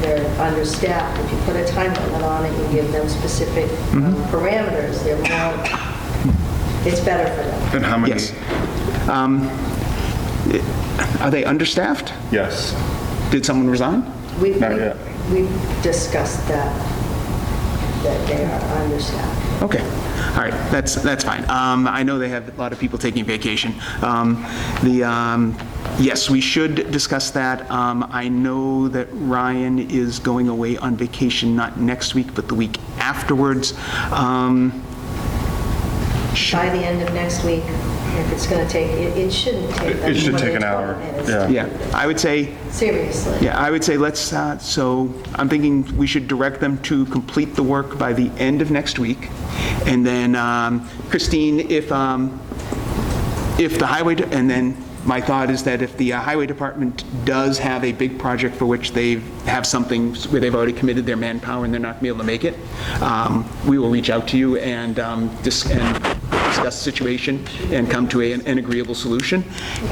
they're understaffed. If you put a time limit on it, you give them specific um, Mm-hmm. parameters, they're more, Hmm. it's better for them. And how many? Yes. Um, Are they understaffed? Yes. Did someone resign? We- Not yet. We we discussed that, that they are understaffed. Okay, all right, that's, that's fine. Um, I know they have a lot of people taking vacation. Um, The, um, yes, we should discuss that. Um, I know that Ryan is going away on vacation, not next week, but the week afterwards. Um, By the end of next week, if it's going to take, it it shouldn't take. It- it should take an hour, yeah. Yeah, I would say, Seriously. yeah, I would say let's, uh, so I'm thinking we should direct them to complete the work by the end of next week. And then um, Christine, if, um, if the highway, de- and then my thought is that if the uh, highway department does have a big project for which they have something where they've already committed their manpower and they're not gonna be able to make it, um, we will reach out to you and um, dis- and discuss the situation and come to a- an agreeable solution.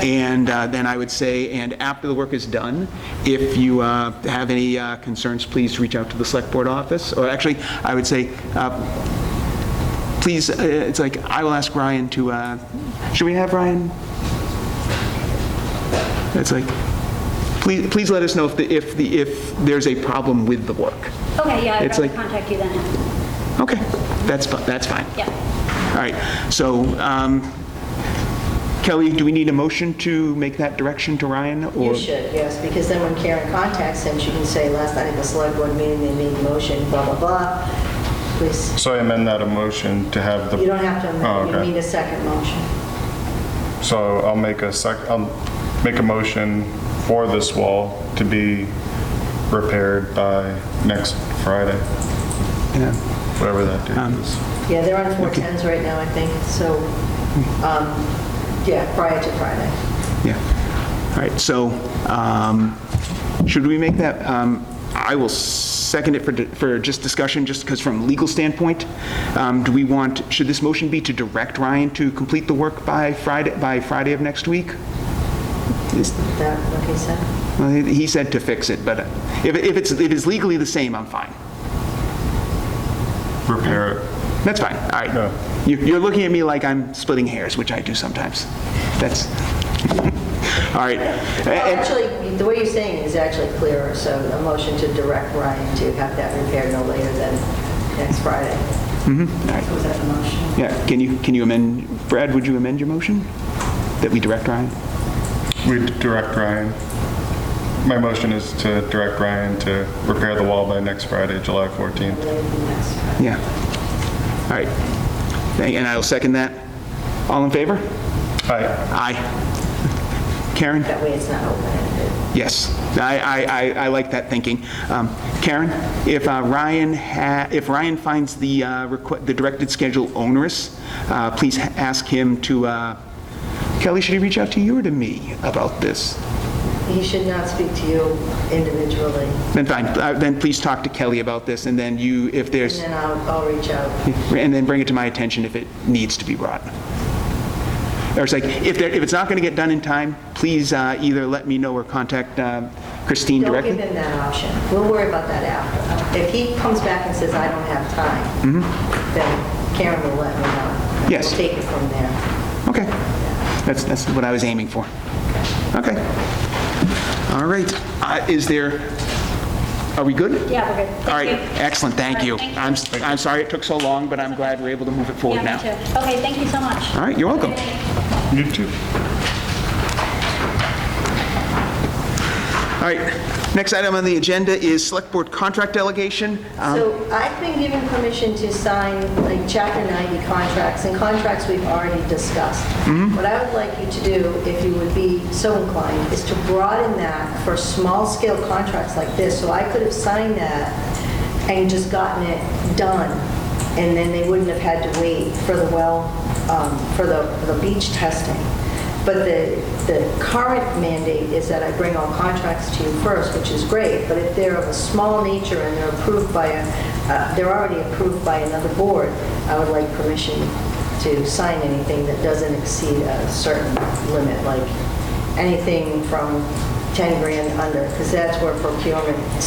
And uh, then I would say, and after the work is done, if you uh, have any uh, concerns, please reach out to the select board office. Or actually, I would say, uh, please, uh, it's like, I will ask Ryan to, uh, should we have Ryan? It's like, please, please let us know if the, if the, if there's a problem with the work. Okay, yeah, I'd It's rather like- contact you then. Okay, that's, fi- that's fine. Yeah. All right, so um, Kelly, do we need a motion to make that direction to Ryan? or- You should, yes, because then when Karen contacts him, she can say, last night at the select board meeting, they made a motion, blah, blah, blah. Please, So I amend that a motion to have the. you don't have to, amend. Oh, you need okay. a second motion. So I'll make a sec, I'll make a motion for this wall to be repaired by next Friday, Yeah. whatever that date is. Yeah, they're on 410s right now, I think, so, um, yeah, prior to Friday. Yeah. All right, so um, should we make that, um, I will second it for for just discussion, just because from legal standpoint, um, do we want, should this motion be to direct Ryan to complete the work by Friday, by Friday of next week? Is- Is that what he said? well, He he said to fix it, but if if it's, if it's legally the same, I'm fine. Repair it. That's fine, all Yeah. right. You- You're looking at me like I'm splitting hairs, which I do sometimes. That's, all right. And- Actually, the way you're saying it is actually clearer, so a motion to direct Ryan to have that repaired no later than next Friday. Mm-hmm. Was that the motion? Yeah, can you, can you amend, Brad, would you amend your motion? That we direct Ryan? We direct Ryan. My motion is to direct Ryan to repair the wall by next Friday, July 14th. Later than next Friday. Yeah. All right. Thank- And I'll second that. All in favor? Aye. Aye. Karen? That way it's not open-ended. Yes. I, I, I- I like that thinking. Um, Karen, if uh, Ryan, ha- if Ryan finds the, uh, requ- the directed schedule onerous, uh, please ha- ask him to, uh, Kelly, should he reach out to you or to me about this? He should not speak to you individually, Then fine, Uh, then please talk to Kelly about this, and then you, if and there's... then I'll, I'll reach out. and then bring it to my attention if it needs to be brought. Or it's like, if there, if it's not going to get done in time, please uh, either let me know or contact um, Christine Don't give directly. him that option. We'll worry about that after. If he comes back and says, I don't have time, then Karen will let me know. Mm-hmm. Yes. We'll take it from there. Okay, that's, that's what I was aiming for. Okay. All right, Uh, is there, are we good? Yeah, we're good. All right, Thank you. excellent, thank you. Thank you. I'm, s- I'm sorry it took so long, but I'm glad we're able to move it forward now. Yeah, me too. Okay, thank you so much. All right, you're welcome. You too. All right, next item on the agenda is Select Board Contract Delegation. Um, So I've been given permission to sign like Chapter 90 contracts and contracts we've already discussed. What I would like you to do, if you would be so inclined, is to broaden that for small-scale contracts like this. So I could have signed that and just gotten it done and then they wouldn't have had to wait for the well, um, for the, the beach testing. But the, the current mandate is that I bring all contracts to you first, which is great, but if they're of a small nature and they're approved by a, uh, they're already approved by another board, I would like permission to sign anything that doesn't exceed a certain limit, like anything from 10 grand under, because that's where procurement